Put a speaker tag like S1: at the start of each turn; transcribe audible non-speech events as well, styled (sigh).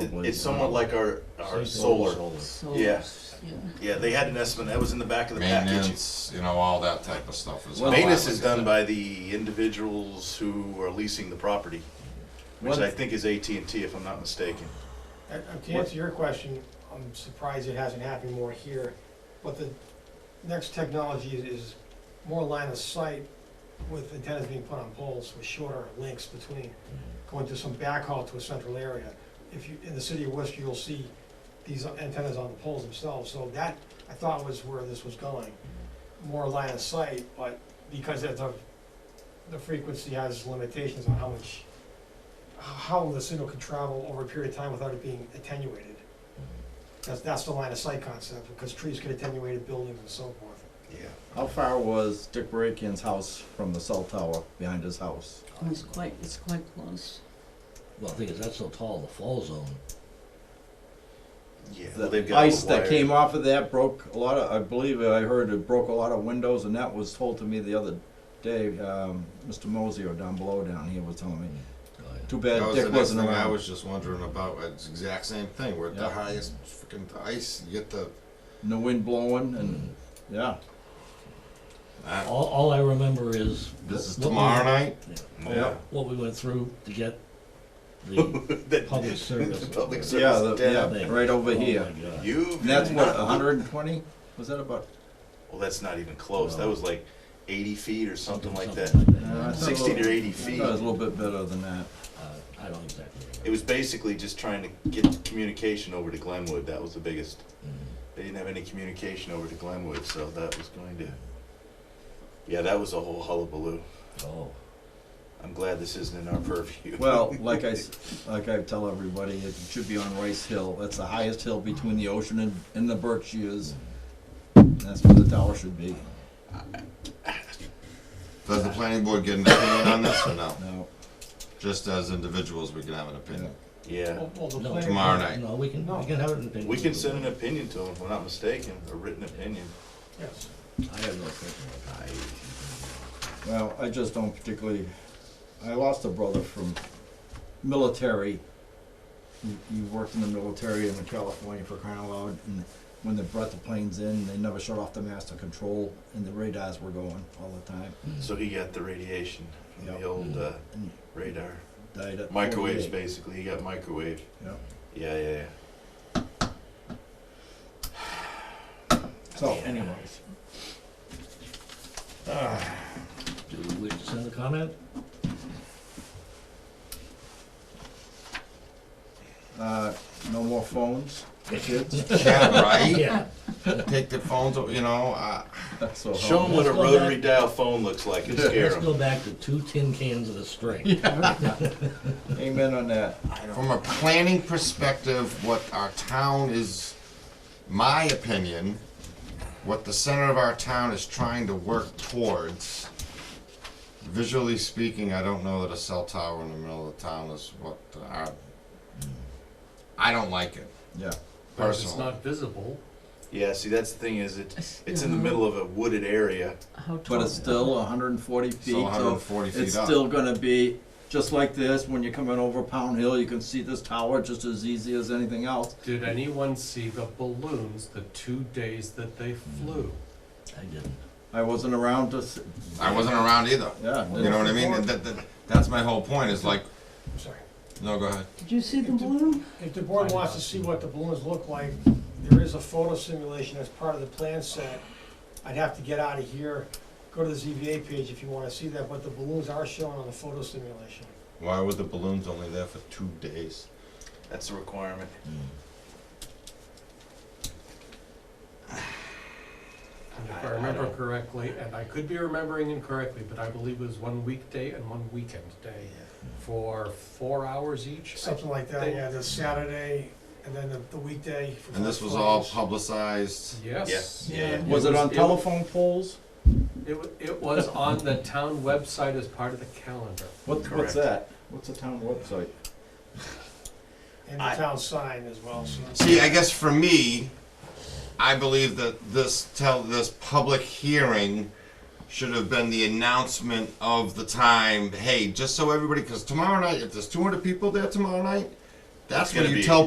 S1: It-
S2: was,
S1: It's
S2: uh,
S1: somewhat like our, our
S2: Solar.
S1: solar.
S3: So,
S1: Yeah.
S3: yeah.
S1: Yeah, they had an estimate, that was in the back of the package.
S4: Maintenance, you know, all that type of stuff is. how I
S1: Maintenance
S4: look
S1: is
S4: at
S1: done
S4: it.
S1: by the individuals who are leasing the property, which
S2: One-
S1: I think is AT&T if I'm not mistaken.
S5: Uh, To answer your question, I'm surprised it hasn't happened more here, but the next technology is- is more line of sight with antennas being put on poles with shorter links between, going to some backhaul to a central area. If you, in the city of Worcester, you'll see these antennas on the poles themselves, so that, I thought was where this was going. More line of sight, but because of the, the frequency has limitations on how much how the signal can travel over a period of time without it being attenuated. That's, that's the line of sight concept, because trees can attenuate buildings and so forth.
S1: Yeah.
S2: How far was Dick Barakian's house from the cell tower behind his house?
S3: It was quite, it's quite close.
S6: Well, the thing is, that's so tall, the fall zone.
S1: Yeah. well, they've
S2: The
S1: got
S2: ice that
S1: wire.
S2: came off of that broke a lot of, I believe I heard it broke a lot of windows and that was told to me the other day, um, Mr. Mosio down below down here was telling me.
S6: Oh, yeah.
S2: Too
S4: That
S2: bad
S4: was
S2: Dick
S4: the next
S2: wasn't
S4: thing I
S2: around.
S4: was just wondering about, it's the exact same thing, we're at the
S2: Yeah.
S4: highest freaking ice, you get the,
S2: And the wind blowing and, yeah.
S4: uh,
S6: All, all I remember is.
S4: this is
S6: what we-
S4: tomorrow night?
S1: (laughs)
S2: Yeah.
S6: What we went through to get the
S1: That-
S6: public
S1: (laughs)
S6: service. Oh,
S1: Public
S2: Yeah,
S1: service
S2: the-
S1: antenna.
S2: yeah, right over here.
S6: You.
S1: You.
S2: And that's what, hundred and twenty? Was that about?
S1: Well, that's not even close. That was like 80 feet or something like that.
S2: Uh, I thought it was-
S1: 60 to 80
S2: I
S1: feet.
S2: thought it was a little bit better than that.
S6: Uh, I don't exactly
S1: It
S6: remember.
S1: was basically just trying to get communication over to Glenwood. That was the biggest. They didn't have any communication over to Glenwood, so that was going to. Yeah, that was a whole hullabaloo.
S6: Oh,
S1: I'm glad this isn't in our purview.
S2: Well, like I, s- (laughs) like I tell everybody, it should be on Rice Hill. That's the highest hill between the ocean and, and the Berkshires. That's where the tower should be.
S4: Does the planning board get an opinion on this or no?
S2: Now,
S4: Just as individuals, we can have an opinion.
S1: (laughs) yeah.
S5: Well, well, the
S6: No,
S5: planning-
S4: Tomorrow night.
S6: no, we can,
S5: No.
S6: we can have it in opinion.
S1: Oh, We can send an opinion to them, if I'm not mistaken, a written opinion.
S5: Yes.
S6: I have no opinion.
S1: I,
S2: well, I just don't particularly, I lost a brother from military. He, he worked in the military in California for crying out loud, and when they brought the planes in, they never shut off the master control, and the radars were going all the time.
S1: so he got the radiation from the
S2: Yeah.
S1: old uh,
S2: And
S1: radar.
S2: died at
S1: Microwaves,
S2: 48.
S1: basically. He got microwave.
S2: Yeah.
S1: Yeah, yeah, yeah.
S2: So anyways,
S6: Do we send a comment?
S2: uh, no more phones,
S4: Yeah,
S6: (laughs)
S4: right?
S6: Yeah.
S4: Take their phones, you know, uh,
S2: that's (laughs) so.
S1: Show him what a
S6: Let's go back.
S1: rotary dial phone looks
S6: (laughs)
S1: like and scare
S6: Let's
S1: him.
S6: go back to two tin cans of the string.
S2: Amen on that.
S4: from a planning perspective, what our town is, my opinion, what the center of our town is trying to work towards, visually speaking, I don't know that a cell tower in the middle of the town is what our, I don't like it
S2: Yeah.
S7: But if it's
S4: personally.
S7: not visible,
S1: Yeah, see, that's the thing is it, it's in the
S3: Yeah.
S1: middle of a wooded area.
S3: How tall?
S2: But it's still 140 feet.
S4: Still 140
S2: so
S4: feet
S2: It's
S4: up.
S2: still going to be just like this. When you're coming over Pound Hill, you can see this tower just as easy as anything else.
S7: did anyone see the balloons the two days that they flew?
S6: I didn't.
S2: I wasn't around to. See,
S4: I wasn't around either,
S2: yeah.
S4: you know what I mean? And That, that, that's my whole point, is like,
S5: I'm sorry.
S4: no, go ahead.
S3: Did you see the balloon?
S5: If the board wants to see what the balloons look like, there is a photo simulation as part of the plan set. I'd have to get out of here, go to the ZVA page if you wanna see that, but the balloons are shown on the photo simulation.
S4: Why were the balloons only there for two days?
S1: That's a requirement.
S7: And if I remember correctly, and I could be remembering incorrectly, but I believe it was one weekday and one weekend day for four hours each.
S5: Something like that, yeah, the Saturday, and then the, the weekday. for
S4: And this was all
S5: Fridays.
S4: publicized.
S7: Yes.
S1: Yeah, yeah, yeah.
S2: Was it on telephone poles?
S7: It, wa- it was on the town website as part of the calendar.
S2: What,
S1: Correct.
S2: what's that? What's the town website?
S5: And the
S4: I-
S5: town sign as well, so.
S4: See, I guess for me, I believe that this tell this public hearing should have been the announcement of the time. Hey, just so everybody, because tomorrow night, if there's 200 people there tomorrow night, that's
S1: It's
S4: when
S1: gonna
S4: you
S1: be-
S4: tell